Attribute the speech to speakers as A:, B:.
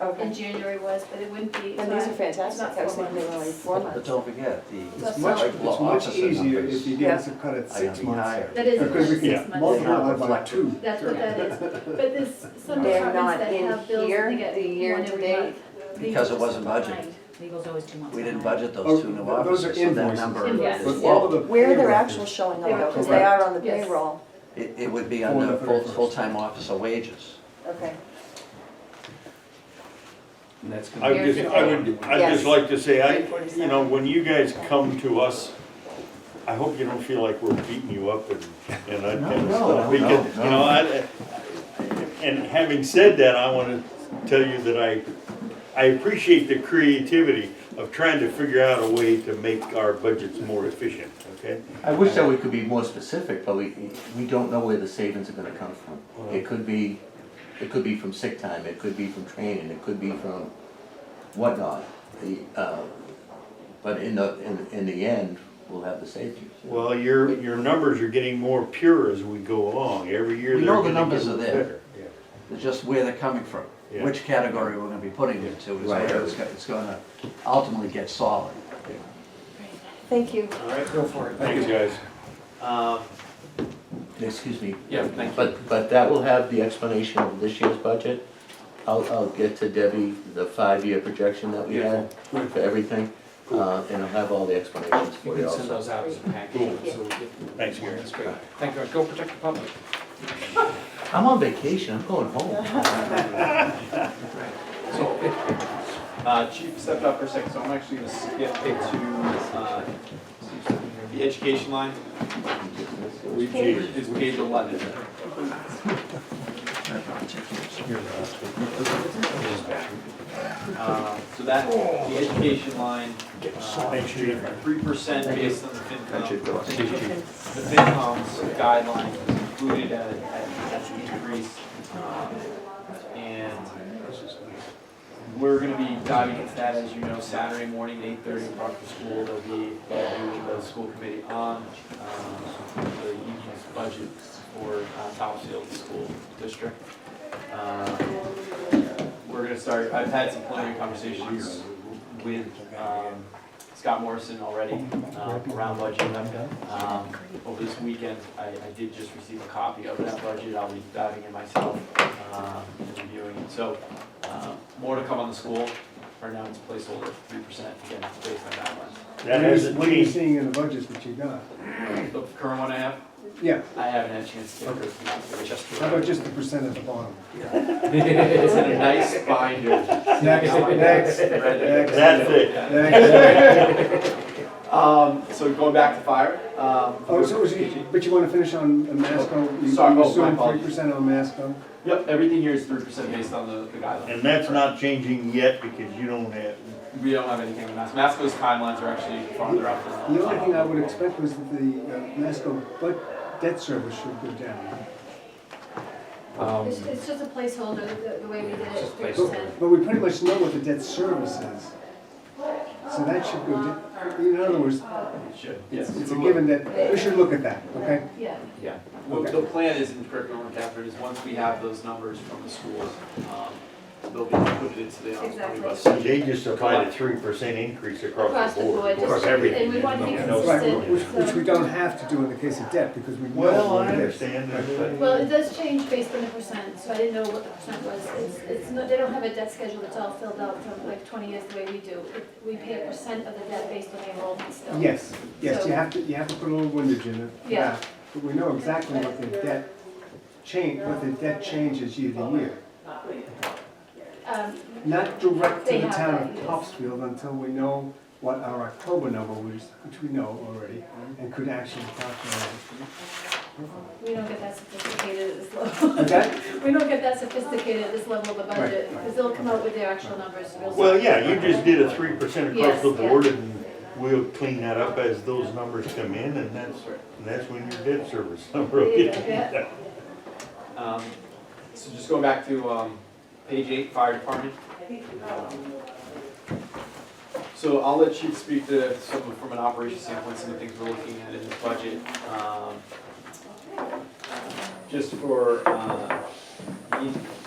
A: Okay.
B: and January was, but it wouldn't be.
A: And these are fantastic,
B: not
A: I was
B: four
A: thinking they were only
B: months.
A: four
C: But
A: months.
C: don't forget, the.
B: That's
D: It's much,
B: not-
D: it's much easier if you give us a cut at
C: I
D: six
C: mean,
D: months.
C: higher.
B: That is a
D: Because we
B: cut at six
D: can
B: months.
D: multiply by two.
B: That's what that is, but there's some
A: They're not
B: departments that
A: in
B: have bills
A: here,
B: that they get
A: the year
B: one
A: to
B: every
A: date.
B: month.
C: Because it wasn't budgeted.
B: Behind.
E: Legal's always two months.
C: We didn't
E: behind.
C: budget
D: Oh,
C: those two new
D: th- those are
C: officers, so that
D: invoices.
C: number
B: Invoices.
C: is,
D: But all of the.
A: Where they're
D: payroll-
A: actually showing
B: They
A: up though,
B: were
A: because they are on the
B: correct. Yes.
A: payroll.
C: it, it would be
D: Four
C: under
D: and a
C: full,
D: third.
C: full-time officer wages.
A: Okay.
D: And that's gonna
F: I
D: be-
F: would just, I would, I'd
A: Yes.
F: just like to say, I, you know, when you guys come to us, I hope you don't feel like we're beating you up and, and I,
C: No,
F: and
C: no,
F: stuff.
C: no,
F: Because,
C: no.
F: you know, I, and having said that, I wanna tell you that I, I appreciate the creativity of trying to figure out a way to make our budgets more efficient, okay?
G: I wish that we could be more specific, but we, we don't know where the savings are gonna come from. It could be, it could be from sick time, it could be from training, it could be from whatnot. The, uh, But in the, in, in the end, we'll have the savings.
F: Well, your, your numbers are getting more pure as we go along, every year
C: We
F: they're
C: know the
F: gonna
C: numbers
F: get
C: are there.
F: better. Yeah.
C: It's just where they're coming from,
F: Yeah.
C: which category we're gonna be putting it to, is
G: Right.
C: where it's go- it's gonna ultimately get solid.
A: Thank you.
H: All right,
D: Go for it.
F: Thanks, guys.
H: um,
G: Excuse me.
H: Yeah, thank you.
G: But, but that will have the explanation of this year's budget. I'll, I'll get to Debbie the five-year projection that we had for everything, uh, and I'll have all the explanations
H: you
G: for you
H: can send
G: also.
H: those out as a
F: Cool.
H: package. so we get-
F: Thanks, Gary.
H: That's great. Thank you, go protect the public.
G: I'm on vacation, I'm going home.
H: Uh, Chief stepped up for a second, so I'm actually gonna skip it to, uh, the education line,
F: We- geez.
H: it's page eleven. Uh, So that, the education line,
F: Thanks, Chief.
H: three percent based on the
G: That should
H: FinCom.
G: go up.
H: The FinCom's guideline is included at, at, at the increase. um, And we're gonna be diving into that, as you know, Saturday morning, eight thirty, after school, there'll be, there'll be the school committee on, um, the union's budget for uh, Topsfield School District. Um, we're gonna start, I've had some preliminary conversations with um, Scott Morrison already um, around budget. Um, Over this weekend, I, I did just receive a copy of that budget, I'll be diving in myself um, and reviewing it. So, uh, more to come on the school, right now it's placeholder three percent, again, based on that one.
F: That hasn't
D: What are you
F: changed.
D: seeing in the budgets that you got?
H: The current one I have,
D: Yeah,
H: I haven't had a chance to get through it, it's just.
D: how about just the percent at the bottom?
H: It's in a nice binder.
D: Next, next, next.
F: That's it.
D: next.
H: Um, so going back to fire, um.
D: Oh, so, is it- but you wanna finish on on Masco? You-
H: Sorry, oh,
D: You
H: my
D: assume three
H: apologies.
D: percent on Masco?
H: Yep, everything here is three percent based on the, the guidelines.
F: And that's not changing yet because you don't have,
H: We don't have anything with Masco. Masco's timelines are actually farther up than.
D: The only thing I would expect was that the uh, Masco but debt service should go down.
H: Um,
B: It's, it's just a placeholder, the, the way we did it,
H: Just
B: three percent.
D: But, but we pretty much know what the debt service is. So that should go down, in other words,
H: it should, yes.
D: it's it's a given that, we should look at that, okay?
B: Yeah.
H: Yeah, Well, the plan is in curriculum, Catherine, is once we have those numbers from the schools, um, they'll be included into the um, omnibus.
B: Exactly.
F: they just applied a three percent increase across the board.
B: just- And we want to be
F: No,
D: Right,
B: consistent.
D: which,
B: so-
D: which we don't have to do in the case of debt, because we know.
F: Well, I
D: what it is.
F: understand that.
B: Well, it does change based on the percent, so I didn't know what the percent was. It's, it's, not- they don't have a debt schedule that's all filled out from like twenty years the way we do. It- We pay a percent of the debt based on the enrollment still.
D: Yes, yes, you
B: So-
D: have to, you have to put a little windage in it.
B: Yeah.
D: But we know exactly what the debt change, what the debt changes year to year.
B: Um,
D: Not direct to
B: They
D: the
B: have
D: town
B: that,
D: of
B: yes.
D: Topsfield until we know what our October number was, which we know already, and could actually calculate.
B: we don't get that sophisticated at this level.
D: Okay?
B: We don't get that sophisticated at this level of the budget,
D: Right, right.
B: because they'll come out with their actual numbers real soon.
F: Well, yeah, you just did a three percent across
B: Yes,
F: the
B: yeah.
F: board and we'll clean that up as those numbers come in and that's, and that's when your debt service number will get.
B: Yeah.
H: Um, so just going back to, um, page eight, fire department. So I'll let Chief speak to some, of- from an operations standpoint, some of the things we're looking at in this budget. Um, Just for, uh, the